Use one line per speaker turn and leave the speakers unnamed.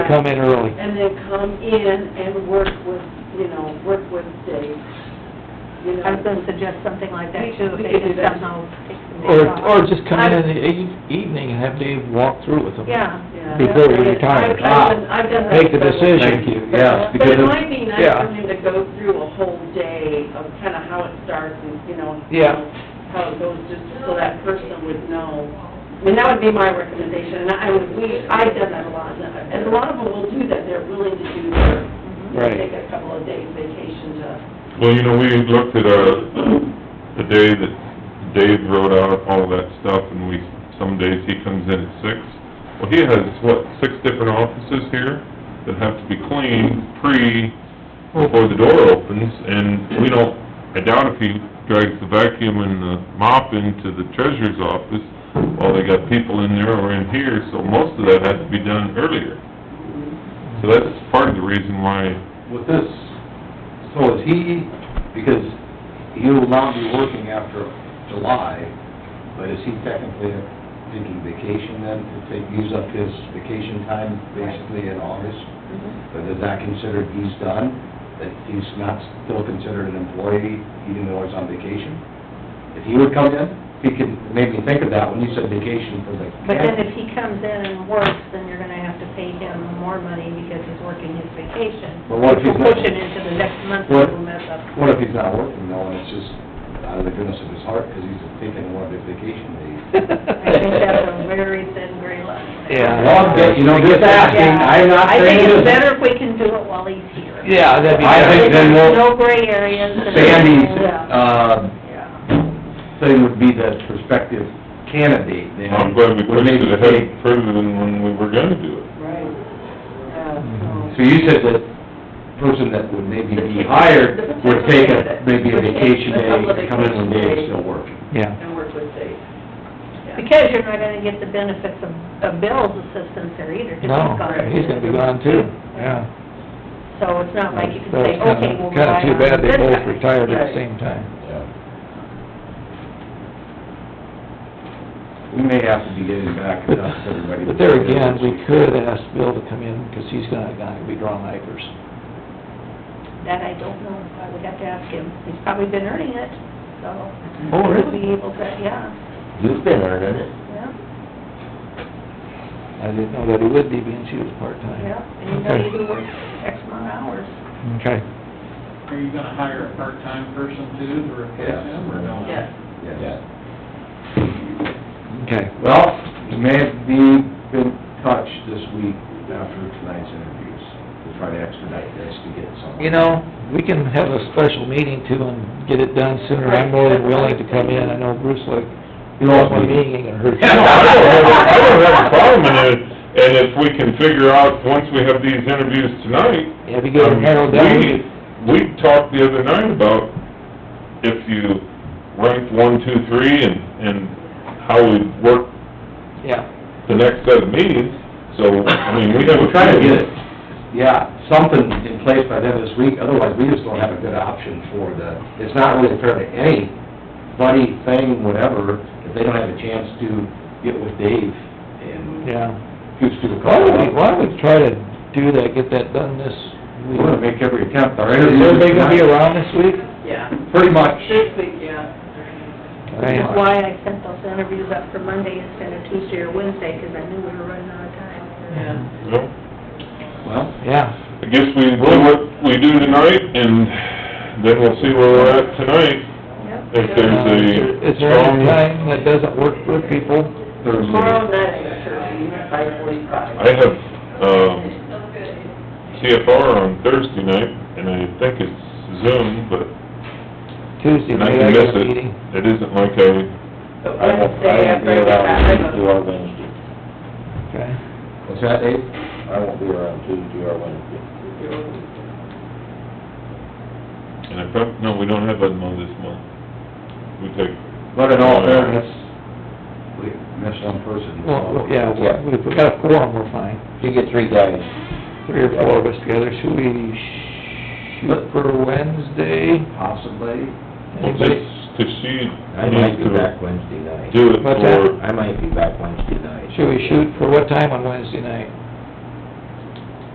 Come in early.
And then come in and work with, you know, work with Dave, you know.
I was gonna suggest something like that too, if
We
they
could do
could
that.
somehow take some days
Or,
off.
or just come in in the eve- evening and have Dave walk through with them.
Yeah,
Yeah,
Before
that's
you
right.
retire.
I've- I've done- I've done that
Make the
before.
decision.
Thank you, yes,
But
because
it
of,
might be nice
yeah.
for him to go through a whole day of kind of how it starts and, you know,
Yeah.
how it goes, just so that person would know. I mean, that would be my recommendation, and I, would- we, I've done that a lot, and a lot of them will do that, they're willing to do their,
Right.
take a couple of days vacation to
Well, you know, we looked at, uh, the day that Dave wrote out all that stuff, and we, some days he comes in at six. Well, he has, what, six different offices here that have to be cleaned pre, before the door opens, and we don't, I doubt if he drags the vacuum and the mop into the treasurer's office while they got people in there or in here, so most of that has to be done earlier. So that's part of the reason why
with this, so is he, because he will not be working after July, but is he technically taking vacation then, to take, use up his vacation time basically in August?
Mm-hmm.
But is that considered he's done, that he's not still considered an employee even though he's on vacation? If he would come in, he could, it made me think of that when you said vacation for the
but then
camp.
if he comes in and works, then you're gonna have to pay him more money because he's working his vacation.
But what if he's
Which will push
not-
it into the next month,
What-
it'll mess up.
What if he's not working though, and it's just out of the goodness of his heart, because he's taking one of his vacation days?
I think that's a very thin gray line.
Yeah.
Well, I'm just- you know, just asking, I'm not
I think
saying
it's
this.
better if we can do it while he's here.
Yeah, that'd be
I
better.
think then
There's
we'll-
No gray areas. and-
Sandy's,
Yeah.
uh,
Yeah.
thing would be the prospective candidate then.
I'm glad we
would
pushed it
maybe
ahead further than when we were gonna do it.
Right. Uh,
take- So you said that person that would maybe be hired would take a, maybe a vacation day, come in one day, still working.
Yeah.
And work with Dave. Yeah.
Because you're not gonna get the benefits of, of Bill's assistance there either, 'cause he's
No,
gone.
he's gonna be gone too, yeah.
So it's not like you can
So
say,
it's kinda-
okay, we'll rely on.
Kinda too bad they
this
both
guy."
retired at the
Right.
same time.
We may have to be getting back to everybody.
But there again, we could ask Bill to come in, because he's gonna, gonna be drawing papers.
That I don't know, I would have to ask him, he's probably been earning it, so. he
Oh,
would
really?
Be able to, yeah,
You've been earning it.
yeah,
I didn't know that he would be, being she was part-time.
yeah, and you know, you do work X amount of hours.
Okay.
Are you gonna hire a part-time person too to replace
Yes.
him, or no?
Yes.
Yeah.
Okay.
Well, you may have be, been touched this week after tonight's interviews, to try to expedite this to get some.
You know, we can have a special meeting too and get it done sooner. I'm more than willing to come in. I know Bruce like,
You know,
"Oh,
it's
my
me.
meeting ain't gonna hurt you."
No, I don't have, I don't have a problem in it, and if we can figure out, once we have these interviews tonight. um,
Yeah, if you get it narrowed down,
We, we talked the other night about if you ranked one, two, three, and, and how we work
yeah.
the next set of meetings, so, I mean, we have a...
We're trying to get, yeah, something in place by then this week, otherwise we just don't have a good option for the, it's not really fair to anybody, thing, whatever, if they don't have a chance to get with Dave and
Yeah.
who's to the
Why
call.
Oh,
don't we, why don't we try to do that, get that done this
We wanna
week?
make every attempt, our
Is
interviews
everybody gonna be
tonight,
around this week?
Yeah,
pretty much,
this week, yeah.
I
That's
am.
why I sent those interviews up for Monday instead of Tuesday or Wednesday, 'cause I knew we were running out of time.
Yeah.
Well,
well,
Yeah,
I guess we do what we do tonight, and then we'll see where we're at tonight,
Yep.
if there's a
Uh, is there any
strong...
time that doesn't work for people?
Thursday.
Tomorrow night, sure, five forty-five.
I have, um, CFR on Thursday night, and I think it's Zoom, but,
Tuesday
and I
night,
can
I
miss
got a
it.
meeting.
It isn't like I,
I won't,
But
I
Wednesday,
won't
I've
be
already got- I
around
have
Tuesday
a-
or Wednesday.
Okay.
what's that, Dave?
I won't be around Tuesday or Wednesday.
and I prob, no, we don't have Edmo this month. We take,
But in all fairness, we missed one person.
Well, well, yeah, well, if we got a forum, we're fine.
If you get three guys,
Three or four of us together. Should we shoot for Wednesday?
Possibly,
well,
Anybody?
this, 'cause she
I might
needs
be
to
back Wednesday night.
do it
What's that?
for,
I might be back Wednesday night.
Should we shoot for what time on Wednesday night?